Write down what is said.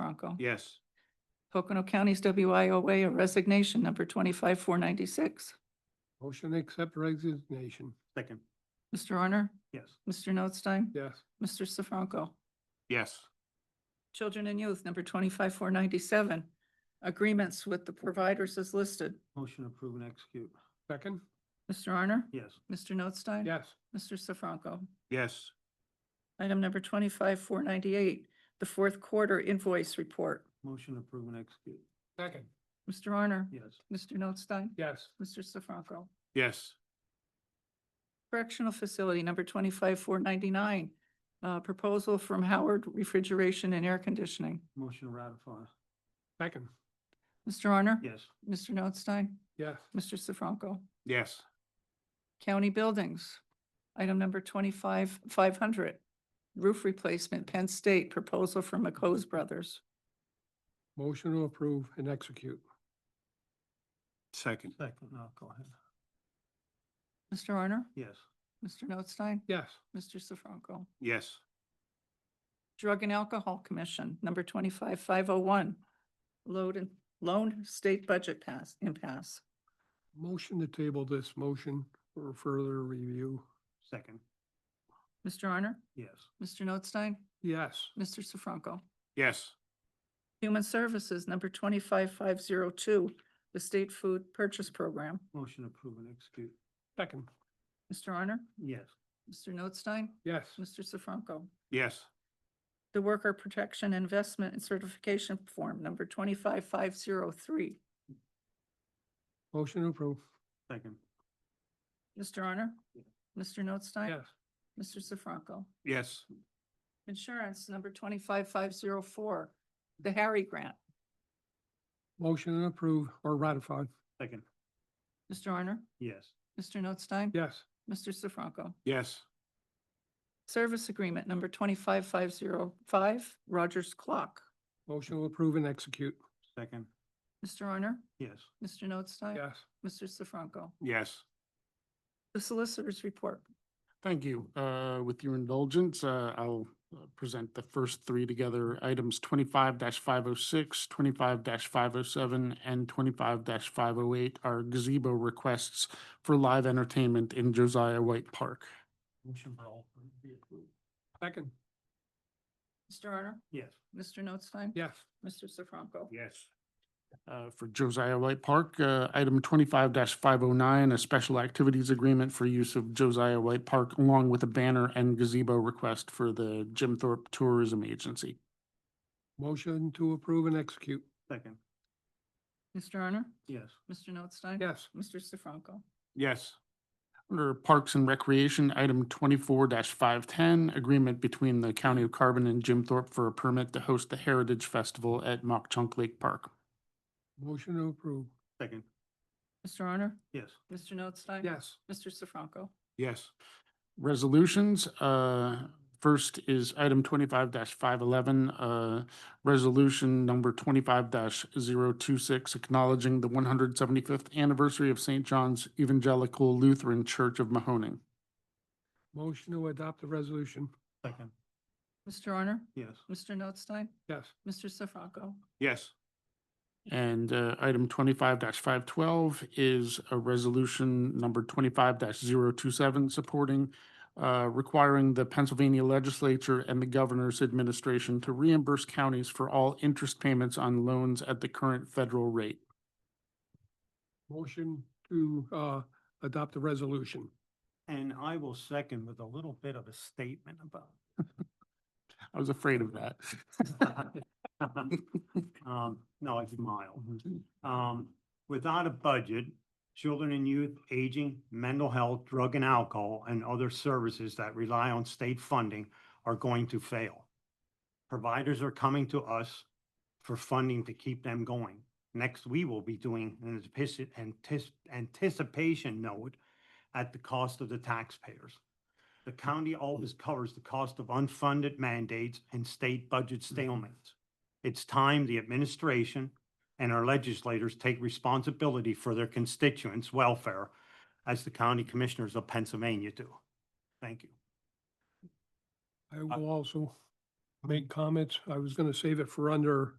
Franco. Yes. Pocono County's WIOA, a resignation number twenty-five, four ninety-six. Motion to accept resignation. Second. Mr. Honor? Yes. Mr. Notstein? Yes. Mr. Sefranco? Yes. Children and Youth, number twenty-five, four ninety-seven. Agreements with the providers is listed. Motion to approve and execute. Second? Mr. Honor? Yes. Mr. Notstein? Yes. Mr. Sefranco? Yes. Item number twenty-five, four ninety-eight, the fourth quarter invoice report. Motion to approve and execute. Second? Mr. Honor? Yes. Mr. Notstein? Yes. Mr. Sefranco? Yes. Correctional Facility, number twenty-five, four ninety-nine, uh, proposal from Howard Refrigeration and Air Conditioning. Motion to ratify. Second? Mr. Honor? Yes. Mr. Notstein? Yes. Mr. Sefranco? Yes. County Buildings, item number twenty-five, five hundred, roof replacement, Penn State, proposal from McCose Brothers. Motion to approve and execute. Second. Second, no, go ahead. Mr. Honor? Yes. Mr. Notstein? Yes. Mr. Sefranco? Yes. Drug and Alcohol Commission, number twenty-five, five oh one, load and loan state budget pass, impasse. Motion to table this motion for further review. Second. Mr. Honor? Yes. Mr. Notstein? Yes. Mr. Sefranco? Yes. Human Services, number twenty-five, five zero two, the State Food Purchase Program. Motion to approve and execute. Second? Mr. Honor? Yes. Mr. Notstein? Yes. Mr. Sefranco? Yes. The Worker Protection Investment and Certification Form, number twenty-five, five zero three. Motion to approve. Second. Mr. Honor? Mr. Notstein? Yes. Mr. Sefranco? Yes. Insurance, number twenty-five, five zero four, the Harry Grant. Motion to approve or ratify. Second. Mr. Honor? Yes. Mr. Notstein? Yes. Mr. Sefranco? Yes. Service Agreement, number twenty-five, five zero five, Rogers Clock. Motion to approve and execute. Second. Mr. Honor? Yes. Mr. Notstein? Yes. Mr. Sefranco? Yes. The Solicitor's Report. Thank you. Uh, With your indulgence, uh, I'll uh, present the first three together. Items twenty-five 506 25 five oh seven, and twenty-five five oh eight are gazebo requests for live entertainment in Josiah White Park. Motion for all three to be approved. Second? Mr. Honor? Yes. Mr. Notstein? Yes. Mr. Sefranco? Yes. Uh, For Josiah White Park, uh, item twenty-five five oh nine, a special activities agreement for use of Josiah White Park along with a banner and gazebo request for the Jim Thorpe Tourism Agency. Motion to approve and execute. Second. Mr. Honor? Yes. Mr. Notstein? Yes. Mr. Sefranco? Yes. Under Parks and Recreation, item twenty-four five-ten, agreement between the County of Carbon and Jim Thorpe for a permit to host the Heritage Festival at Mock Chunk Lake Park. Motion to approve. Second. Mr. Honor? Yes. Mr. Notstein? Yes. Mr. Sefranco? Yes. Resolutions, uh, first is item twenty-five five-eleven, uh, resolution number twenty-five 26 acknowledging the one hundred seventy-fifth anniversary of St. John's Evangelical Lutheran Church of Mahoning. Motion to adopt the resolution. Second. Mr. Honor? Yes. Mr. Notstein? Yes. Mr. Sefranco? Yes. And uh, item twenty-five five twelve is a resolution number twenty-five 27 supporting uh, requiring the Pennsylvania legislature and the governor's administration to reimburse counties for all interest payments on loans at the current federal rate. Motion to uh, adopt the resolution. And I will second with a little bit of a statement about I was afraid of that. Um, no, I smile. Um, without a budget, children and youth, aging, mental health, drug and alcohol, and other services that rely on state funding are going to fail. Providers are coming to us for funding to keep them going. Next, we will be doing an antici- antici- anticipation note at the cost of the taxpayers. The county always covers the cost of unfunded mandates and state budget stalemates. It's time the administration and our legislators take responsibility for their constituents' welfare as the county commissioners of Pennsylvania do. Thank you. I will also make comments. I was going to save it for under